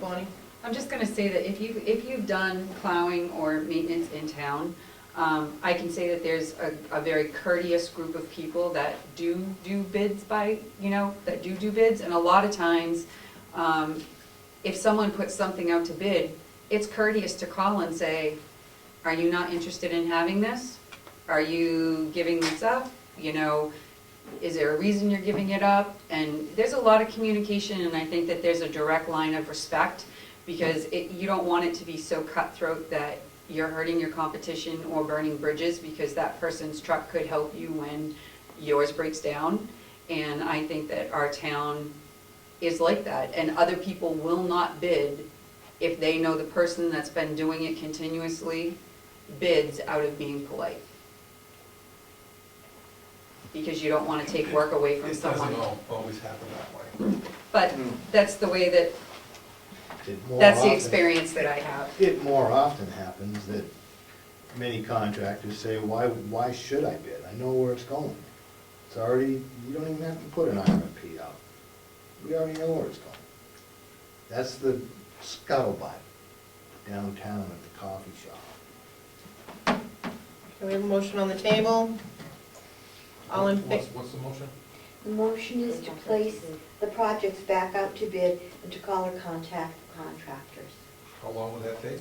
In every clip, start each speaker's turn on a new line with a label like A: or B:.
A: Bonnie?
B: I'm just gonna say that if you, if you've done plowing or maintenance in town, um, I can say that there's a, a very courteous group of people that do do bids by, you know, that do do bids, and a lot of times, um, if someone puts something out to bid, it's courteous to call and say, are you not interested in having this? Are you giving this up? You know, is there a reason you're giving it up? And there's a lot of communication, and I think that there's a direct line of respect, because it, you don't want it to be so cutthroat that you're hurting your competition or burning bridges, because that person's truck could help you when yours breaks down. And I think that our town is like that, and other people will not bid if they know the person that's been doing it continuously bids out of being polite. Because you don't wanna take work away from
C: It
B: someone.
C: doesn't al- always happen that way.
B: But that's the way that,
D: It more
B: that's the
D: often-
B: experience that I have.
D: It more often happens that many contractors say, why, why should I bid? I know where it's going. It's already, you don't even have to put an RFP out. We already know where it's going. That's the scuttlebutt downtown at the coffee shop.
A: Okay, we have a motion on the table. All in
C: What's,
A: favor?
C: what's the motion?
E: The motion is to place the projects back out to bid and to call or contact the contractors.
C: How long would that take?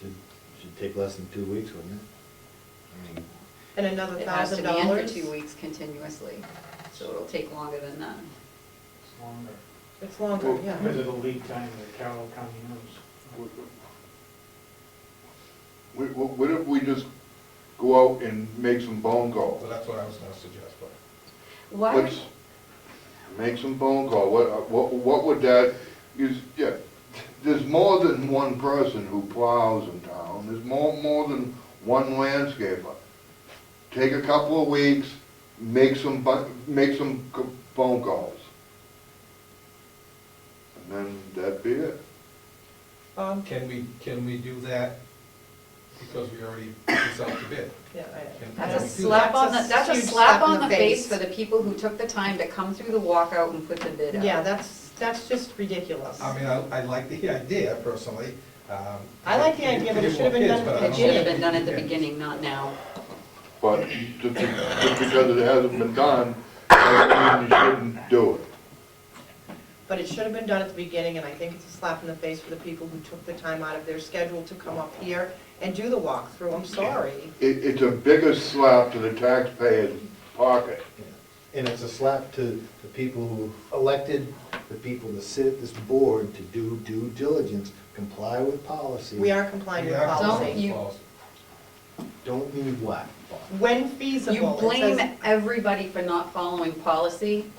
D: Should, should take less than two weeks, wouldn't it? I mean,
A: And another
B: It has to
A: thousand
B: be in for
A: dollars?
B: two weeks continuously, so it'll take longer than that.
F: It's longer.
A: It's longer,
F: Because
A: yeah.
F: of the lead time that Carroll County knows.
G: What, what what if we just go out and make some phone
C: Well,
G: calls?
C: that's what I was gonna suggest, but
B: Why,
G: Let's Make some phone call, what, what, what would that, is, yeah, there's more than one person who plows in town, there's more, more than one landscaper. Take a couple of weeks, make some, bu- make some c- phone calls. And then that'd be it.
A: Bob?
C: can we, can we do that? Because we already put this out to bid.
A: Yeah,
C: Can-
A: I-
B: that's a
C: That's
B: slap on the, that's a
A: huge
B: slap on the face for the people who took the time to come through the walkout and put the bid out.
A: Yeah, that's, that's just ridiculous.
C: I mean, I, I like the idea personally. um,
A: I like the idea, but it
C: give
A: should have been
C: more
A: done
C: kids, but I
A: at the
B: It
C: don't
B: should have
C: think
B: been done at the
C: we can.
B: beginning, not now.
G: But just, just because it hasn't been done, doesn't mean you shouldn't do it.
A: But it should have been done at the beginning, and I think it's a slap in the face for the people who took the time out of their schedule to come up here and do the walkthrough. I'm sorry.
G: It, it's a bigger slap to the taxpayer's pocket.
D: And it's a slap to the people who elected, the people that sit at this board to do due diligence, comply with policy.
A: We are complying
C: We
A: with
C: are
B: Don't
A: policy.
B: you-
C: policy.
D: Don't need what?
A: When
B: You
A: feasible, it
B: blame
A: says,
B: everybody for not following policy.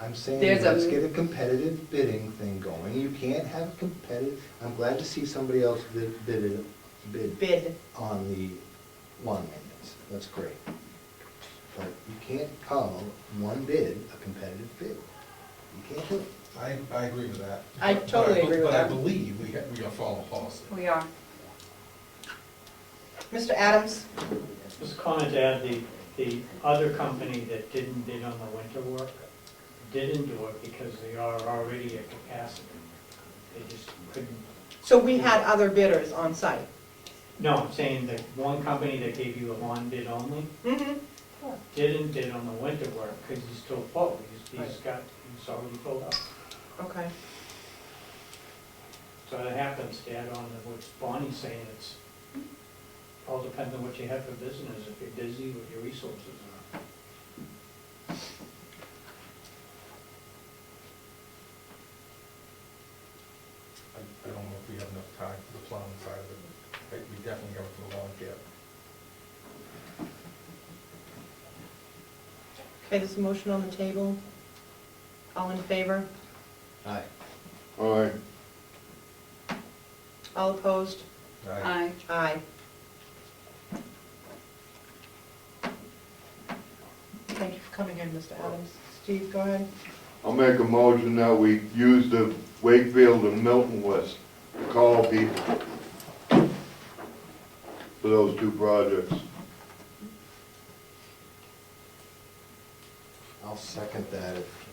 D: I'm saying,
B: There's a-
D: let's get a competitive bidding thing going. You can't have competitive, I'm glad to see somebody else bid, bid, it- bid
A: bid.
D: on the lawn maintenance. That's great. But you can't call one bid a competitive bid. You can't do it.
C: I, I agree with that.
A: I
C: But-
A: totally agree with
C: But I
A: that.
C: believe we, ha- we are following policy.
B: We are.
A: Mr. Adams?
F: Just a comment to add, the, the other company that didn't bid on the winter work didn't do it because they are already at capacity. They just couldn't,
A: So we had other bidders on site.
F: no, I'm saying that one company that gave you a lawn bid only
A: Mm-hmm.
F: didn't bid on the winter work because he's still full. He's, he's got, he's already filled up.
A: Okay.
F: So that happens, to add on to what Bonnie's saying, it's, all depends on what you have for business, if you're busy, what your resources are.
C: I I don't know if we have enough time for the plowing side of it. I think We definitely have it for the lawn care.
A: Okay, there's a motion on the table. All in favor?
D: Aye.
G: All right,
A: All opposed?
C: Right?
B: Aye.
A: Aye. Thank you for coming in, Mr. Adams. Steve, go ahead.
G: I'll make a motion that we use the Wakefield and Milton list to call people for those two projects.
D: I'll second that if